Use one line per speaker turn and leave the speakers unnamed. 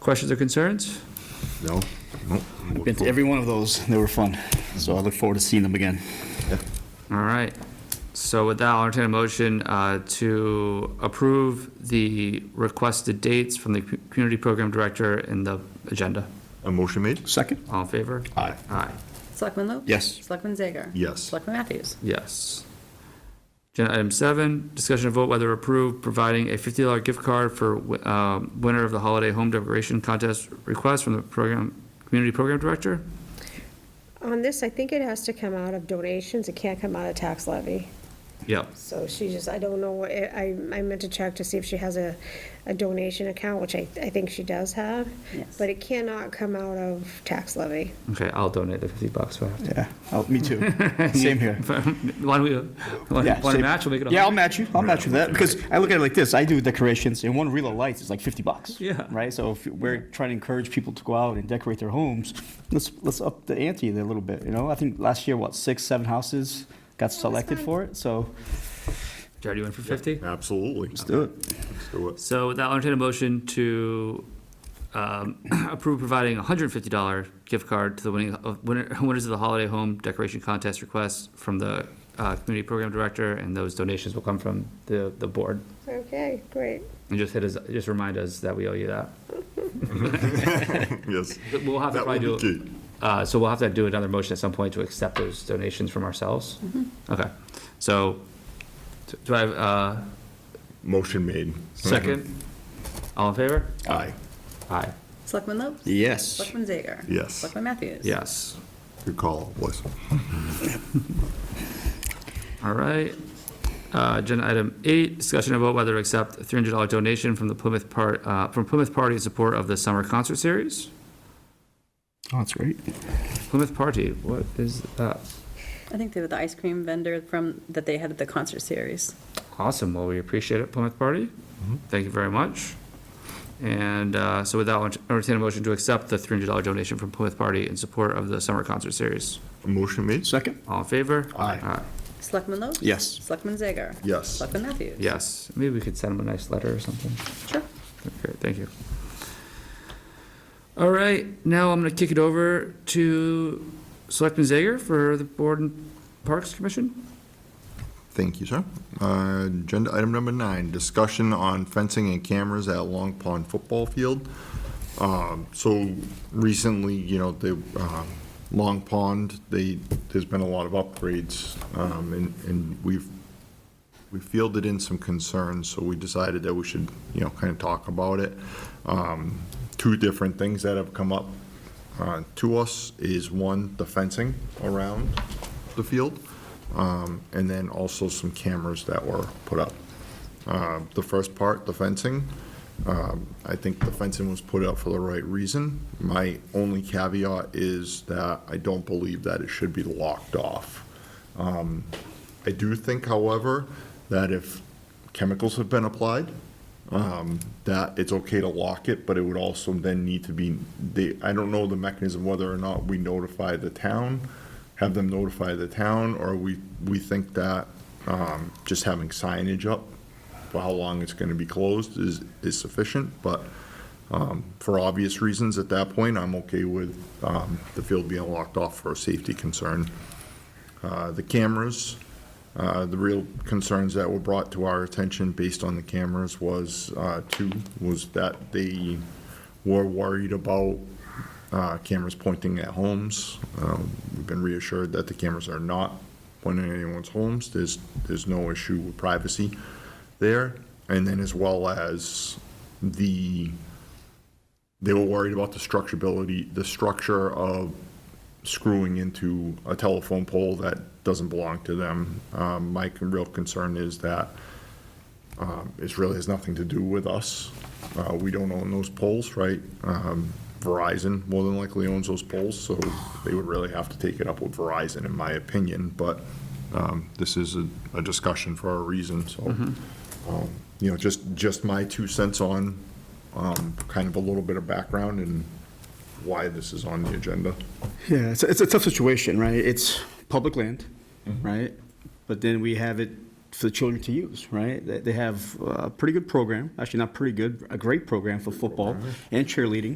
Questions or concerns?
No?
Been to every one of those, they were fun, so I look forward to seeing them again.
All right. So with that, I'll entertain a motion uh, to approve the requested dates from the cu- Community Program Director in the agenda.
A motion made?
Second?
All in favor?
Aye.
Aye,
Selectman Lopes?
Yes.
Selectman Zager?
Yes.
Selectman Matthews?
yes. Agenda item seven, discussion of vote whether approve providing a fifty dollar gift card for wi- um, winner of the holiday home decoration contest request from the program, Community Program Director?
On this, I think it has to come out of donations, it can't come out of tax levy.
Yep.
So she just, I don't know, I, I meant to check to see if she has a, a donation account, which I, I think she does have.
Yes.
But it cannot come out of tax levy.
Okay, I'll donate the fifty bucks. if I have to.
Yeah, oh, me too. Same here.
Why don't we, want
Yeah,
to
same.
match? We'll make it a
Yeah, I'll
hundred.
match you, I'll match you with that, because I look at it like this, I do decorations, and one reel of lights is like fifty bucks.
Yeah.
Right, so if we're trying to encourage people to go out and decorate their homes, let's, let's up the ante there a little bit, you know? I think last year, what, six, seven houses got selected for it, so.
Jared, you in for fifty?
Absolutely. Let's
do it.
Let's do it.
So with that, I'll entertain a motion to um, approve providing a hundred and fifty dollar gift card to the winning, of- winner- winners of the holiday home decoration contest request from the uh, community program director, and those donations will come from the, the board.
Okay, great.
And just hit us, just remind us that we owe you that.
Yes.
We'll have to
That
probably
would
do,
be key.
uh, so we'll have to do another motion at some point to accept those donations from ourselves. Okay, so, do- do I have, uh,
Motion made.
second? All in favor?
Aye.
Aye.
Selectman Lopes?
Yes.
Selectman Zager?
Yes.
Selectman Matthews?
Yes.
Good call, boys.
All right. Uh, Agenda item eight, discussion about whether to accept a $300 donation from the Plymouth Part, uh, from Plymouth Party in support of the summer concert series.
Oh, that's great.
Plymouth Party, what is that?
I think they were the ice cream vendor from, that they had at the concert series.
Awesome. Well, we appreciate it, Plymouth Party.
Mm-hmm.
Thank you very much. And uh, so with that, I'll entertain a motion to accept the $300 donation from Plymouth Party in support of the summer concert series.
Motion made?
Second?
All in favor?
Aye.
Selectman Lopes?
Yes.
Selectman Zager?
Yes.
Selectman Matthews?
Yes. Maybe we could send them a nice letter or something.
Sure.
Great, thank you. All right, now I'm gonna kick it over to Selectman Zager for the Board and Parks Commission.
Thank you, sir. Uh, Agenda item number nine, discussion on fencing and cameras at Long Pond Football Field. Um, So recently, you know, the um, Long Pond, they, there's been a lot of upgrades, um, and and we've, we fielded in some concerns, so we decided that we should, you know, kind of talk about it. Um, Two different things that have come up uh, to us is, one, the fencing around the field, um, and then also some cameras that were put up. Uh, The first part, the fencing, um, I think the fencing was put up for the right reason. My only caveat is that I don't believe that it should be locked off. Um, I do think, however, that if chemicals have been applied, um, that it's okay to lock it, but it would also then need to be, they, I don't know the mechanism whether or not we notify the town, have them notify the town, or we, we think that, um, just having signage up for how long it's gonna be closed is, is sufficient, but, um, for obvious reasons, at that point, I'm okay with, um, the field being locked off for a safety concern. Uh, The cameras, uh, the real concerns that were brought to our attention based on the cameras was, uh, two, was that they were worried about uh, cameras pointing at homes. Um, We've been reassured that the cameras are not pointing at anyone's homes. There's, there's no issue with privacy there. And then as well as the, they were worried about the structurability, the structure of screwing into a telephone pole that doesn't belong to them. Um, My con- real concern is that um, it really has nothing to do with us. Uh, We don't own those poles, right? Um, Verizon more than likely owns those poles, so they would really have to take it up with Verizon, in my opinion. But um, this is a a discussion for a reason, so, um, you know, just, just my two cents on um, kind of a little bit of background and why this is on the agenda.
Yeah, it's, it's a tough situation, right? It's public land, right? But then we have it for the children to use, right? They, they have a pretty good program, actually not pretty good, a great program for football and cheerleading,